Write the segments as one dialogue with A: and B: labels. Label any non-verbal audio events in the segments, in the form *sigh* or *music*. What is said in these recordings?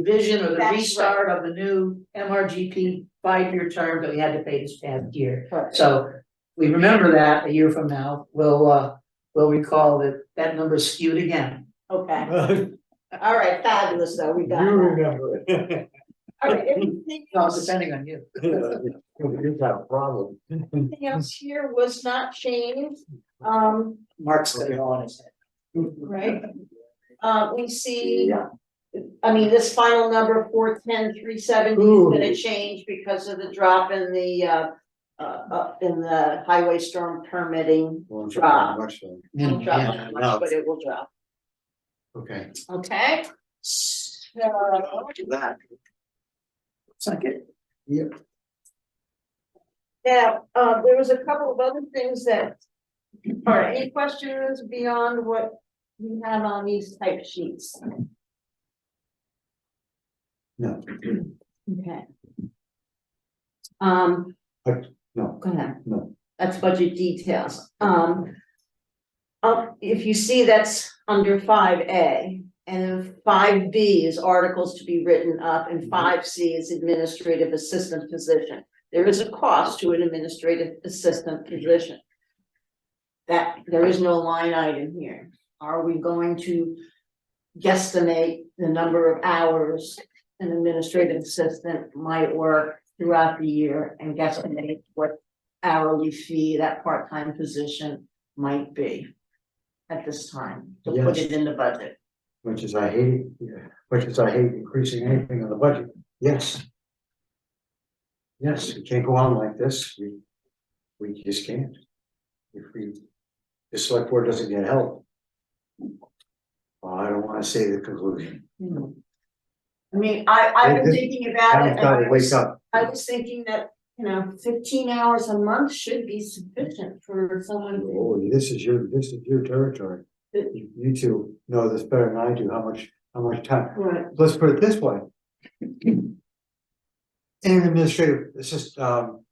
A: revision or the
B: That's right.
A: restart of the new MRGP five-year term that we had to pay this past year.
B: Correct.
A: So we remember that a year from now, we'll, uh, we'll recall that that number is skewed again.
B: Okay,
C: You
B: all right, fabulous, though, we got that.
C: remember it. *laughs*
B: All right, everything
A: No, it's
B: else-
A: depending on you.
C: We just have a problem.
B: everything else here was not changed, um,
A: Mark's got it all in his head.
B: right? Uh, we see, I mean, this final number, four ten three seventy, is
C: Ooh.
B: gonna change because of the drop in the, uh, uh, uh, in the highway storm permitting,
C: Well, it's
B: Drop.
C: much so.
B: Won't drop
A: Mm, Yeah.
B: that much, but it will drop,
C: Okay.
B: okay? So,
C: That.
A: Second,
B: Now, uh, there was a couple of other things that, or any questions beyond what we have on these type sheets?
C: No,
B: Okay. Um,
C: no,
B: go ahead.
C: No.
B: That's budget details. Um. up- if you see that's under five A and then five B is articles to be written up
C: Mm-hmm.
B: and five C is administrative assistant position. There is a cost to an administrative assistant position. That, there is no line item here. Are we going to guesstimate the number of hours an administrative assistant might work throughout the year and guesstimate what hourly fee that part-time position might be at this time, to put
C: Yes.
B: it in the budget.
C: which is I hate, yeah, which is I hate increasing anything on the budget. Yes. Yes, we can't go on like this. We, we just can't. If we, the select board doesn't get help. I don't wanna say the conclusion.
A: Mm.
B: I mean, I, I've been
C: This-
B: thinking about it.
C: I've
B: and
C: gotta
B: I
C: wake
B: was-
C: up.
B: I was thinking that, you know, fifteen hours a month should be sufficient for someone to
C: Oh, this is your, this is your territory. You you two know this better than I do, how much, how much time,
B: Right,
C: let's put it this way. In administrative assist, um,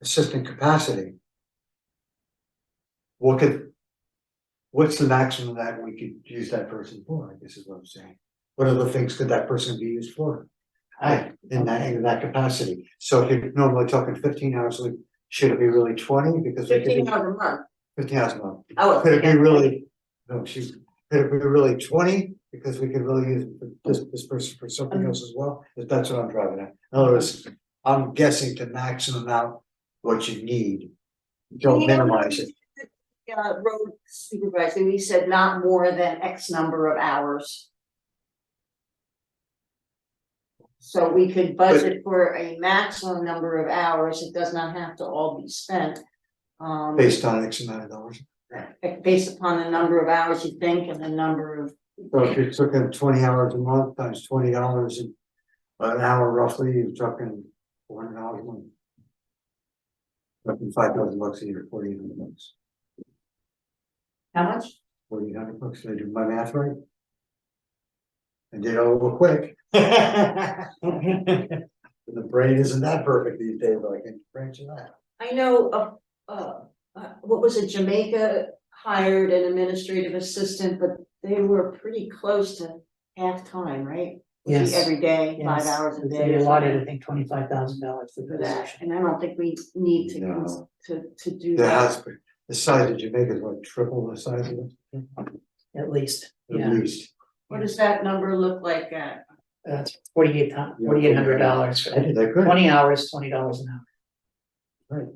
C: assistant capacity. What could, what's the maximum that we could use that person for, I guess is what I'm saying. What other things could that person be used for? I, in that, in that capacity, so if you're normally talking fifteen hours, a week, should it be really twenty, because we could
B: fifteen
C: be-
B: hours a month, Oh,
C: fifteen hours a month.
B: I was
C: Could it be
B: thinking,
C: really, no, she's, could it be really twenty, because we could really use this, this person for something else as well, if that's what I'm driving at. In other words, I'm guessing to maximum out what you need. Don't minimize it,
B: uh, road supervisor, we said not more than X number of hours. So we could budget for a maximum number of hours, it does not have to all be spent. Um, eh,
C: based on X amount of dollars.
B: based upon the number of hours you think and the number of,
C: So if you're talking twenty hours a month times twenty dollars an hour roughly, you're talking four hundred dollars a month. Roughly five thousand bucks a year, forty hundred bucks,
B: how much?
C: forty hundred bucks, did I do my math right? I did it a little quick. *laughs* The brain isn't that perfect these days, but I can branch it out.
B: I know, uh, uh, uh, what was it, Jamaica hired an administrative assistant, but they were pretty close to half-time, right? Would be
A: Yes.
B: Every day, five
A: Yes.
B: hours a day.
A: They
B: or
A: allotted, I
B: something
A: think, twenty-five thousand dollars for
B: For
A: the
B: that,
A: position.
B: and I don't think we need to,
C: No.
B: cons- to, to do
C: The
B: that.
C: house, the size of Jamaica is what, triple the size of it,
A: At least,
C: at
A: yeah,
C: least.
B: What does that number look like at?
A: that's forty-eight
C: Yeah.
A: forty-eight hundred dollars for
C: I did that good.
A: twenty hours, twenty dollars an hour.
C: Right.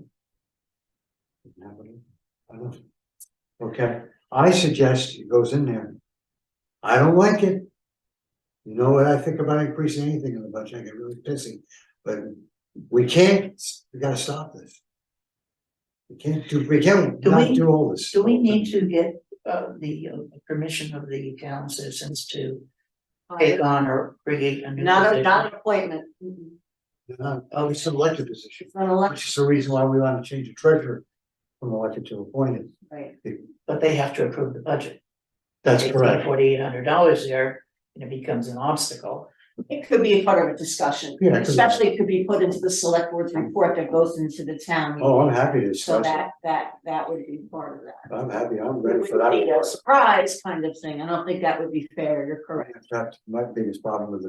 C: Now, what do you- I don't- Okay, I suggest it goes in there. I don't like it. You know what I think about increasing anything in the budget, I get really pissy, but we can't, we gotta stop this. We can't do, we can't
A: Do
C: not
A: we-
C: do all this.
A: Do we need to get uh the uh, permission of the town citizens to take on or create a new
B: Not a,
A: position?
B: not an appointment, Mm-mm.
C: No, Oh, it's an elected position,
B: it's not elected,
C: which is the reason why we wanna change the treasurer from elected to appointed.
B: right?
A: But they have to approve the budget.
C: That's correct.
A: Forty-eight hundred dollars there, and it becomes an obstacle.
B: It could be a part of a discussion,
C: Yeah, it could be. Mm.
B: especially it could be put into the select board's report that goes into the town.
C: Oh, I'm happy to
B: So
C: discuss it.
B: that, that, that would be part of that.
C: I'm happy, I'm
B: It
C: ready for that.
B: would be a surprise kind of thing. I don't think that would be fair. You're correct.
C: In fact, my biggest problem with the